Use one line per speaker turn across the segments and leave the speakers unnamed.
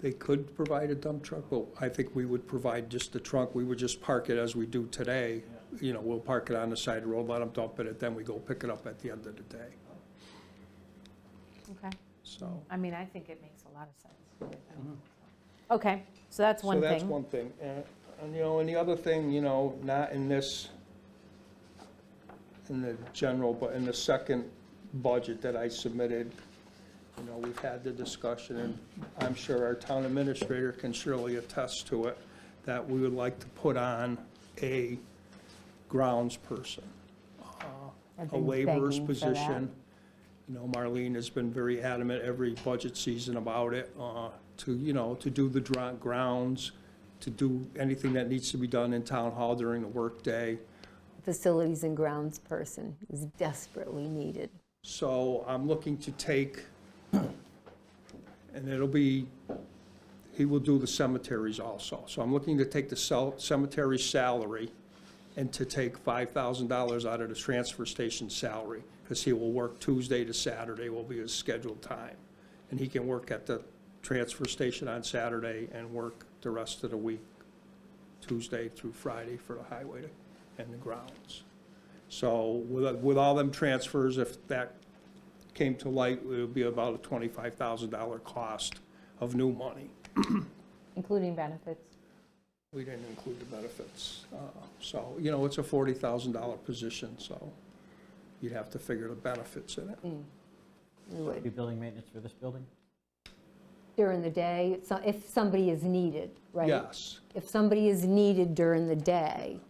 They could provide a dump truck, but I think we would provide just the trunk. We would just park it as we do today. You know, we'll park it on the side of the road, let them dump it, and then we go pick it up at the end of the day,
Okay.
so.
I mean, I think it makes a lot of sense. Mm-hmm. Okay, so that's one
So that's
thing.
one thing. And, and, you know, and the other thing, you know, not in this, in the general, but in the second budget that I submitted, you know, we've had the discussion, and I'm sure our town administrator can surely attest to it, that we would like to put on a grounds person
I've
a
been
laborer's
begging for that.
position. You know, Marlene has been very adamant every budget season about it, uh, to, you know, to do the dr- grounds, to do anything that needs to be done in town hall during the workday.
Facilities and grounds person is desperately needed.
So I'm looking to take, and it'll be, he will do the cemeteries also. So I'm looking to take the cel- cemetery salary and to take $5,000 out of the transfer station salary, because he will work Tuesday to Saturday will be his scheduled time. And he can work at the transfer station on Saturday and work the rest of the week, Tuesday through Friday for the highway and the grounds. So with, with all them transfers, if that came to light, it would be about a twenty-five thousand dollar cost of new money.
Including benefits.
We didn't include the benefits. Uh, So, you know, it's a forty thousand dollar position, so you'd have to figure the benefits in it.
We would.
Do building maintenance for this building?
During the day, so- if somebody is needed, right?
Yes,
If somebody is needed during the day,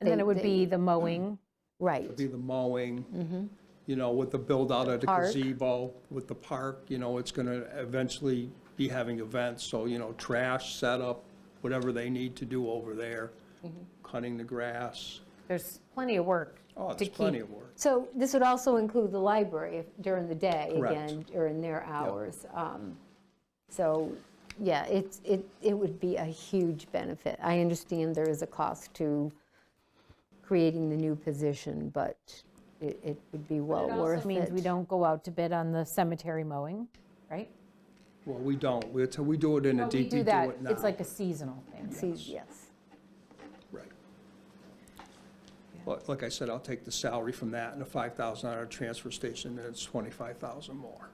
And then
They-
it would
they-
be the mowing.
right.
it'd be the mowing, you know, with the build out of the
Mm-hmm. Park.
gazebo, with the park, you know, it's gonna eventually be having events, so, you know, trash setup, whatever they need to do over there,
Mm-hmm.
cutting the grass.
There's plenty of work
Oh,
to
there's plenty
keep.
of work.
So this would also include the library if- during the day,
Correct.
again, during their hours. Um, So, yeah, it's, it, it would be a huge benefit. I understand there is a cost to creating the new position, but it, it would be well worth it.
It means we don't go out to bid on the cemetery mowing, right?
Well, we don't, we, we do it in a
But we
DP, do
do
it
that,
now.
it's like a seasonal thing.
See, Yes.
Right. But like I said, I'll take the salary from that and the five thousand dollar transfer station, and it's twenty-five thousand more.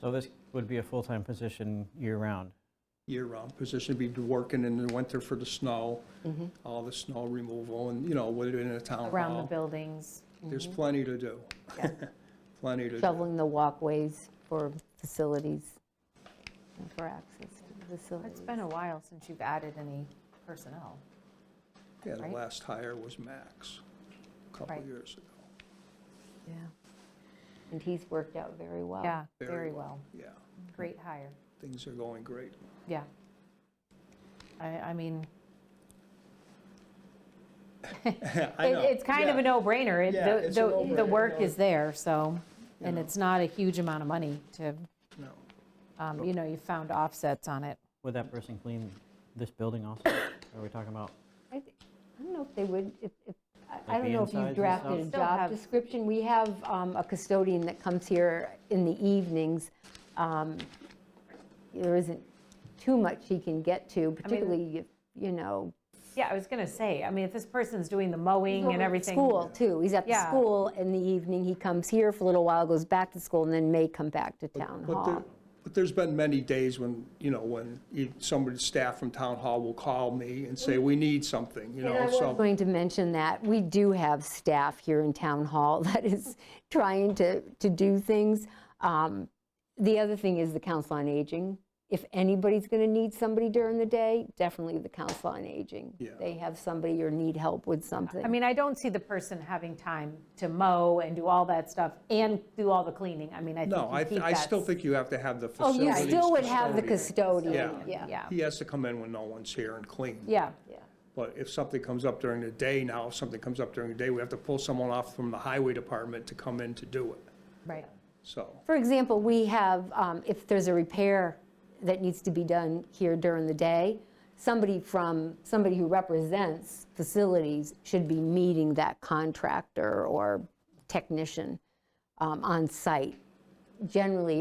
So this would be a full-time position year-round?
Year-round position, be working in the winter for the snow, all the snow removal, and, you know, within the town
Mm-hmm. Around the mm-hmm.
hall.
buildings.
There's plenty to do. Plenty to do.
Shoveling the walkways for facilities, and for access to the
It's
facilities.
been a while since you've added any personnel.
Yeah, the
right?
last hire was Max, a couple
Right.
years ago.
Yeah. And he's worked out very well.
Yeah,
Very
very
well.
well.
Yeah,
Great hire.
things are going great.
Yeah. I, I mean,
I
it-
know,
it's kind of
yeah.
a no-brainer. It-
Yeah,
the-
it's a
The, the
no-brainer,
work
no.
is there, so,
You
and
know.
it's not a huge amount of money to,
No.
um, you know, you found offsets on it.
Would that person clean this building also? Or Are we talking about,
I th- I don't know if they would, if, if- I- I
Like
don't
the
know if
insides
you
and
drafted
stuff?
a
Still have-
job description. We have um, a custodian that comes here in the evenings. Um, There isn't too much he can get to, particularly, if, you know.
Yeah, I was going to say, I mean, if this person's doing the mowing and everything.
School, too. He's at the
Yeah.
school in the evening. He comes here for a little while, goes back to school, and then may come back to town
But there-
hall.
But there's been many days when, you know, when you- somebody, staff from town hall will call me and say, we need something, you
And I
know,
was
so.
going to mention that, we do have staff here in Town Hall that is trying to, to do things. Um, The other thing is the Council on Aging. If anybody's going to need somebody during the day, definitely the Council on Aging.
Yeah.
They have somebody or need help with something.
I mean, I don't see the person having time to mow and do all that stuff and do all the cleaning. I mean, I think
No, I,
you keep
I
that
still
s-
think you have to have the
Oh, you
facilities
still would have the
custodian.
custodian,
Yeah.
yeah.
Yeah,
He has to come in when no one's here and clean.
yeah.
yeah.
But if something comes up during the day now, if something comes up during the day, we have to pull someone off from the highway department to come in to do it,
Right.
so.
For example, we have, um, if there's a repair that needs to be done here during the day, somebody from, somebody who represents facilities should be meeting that contractor or technician um, on site. Generally,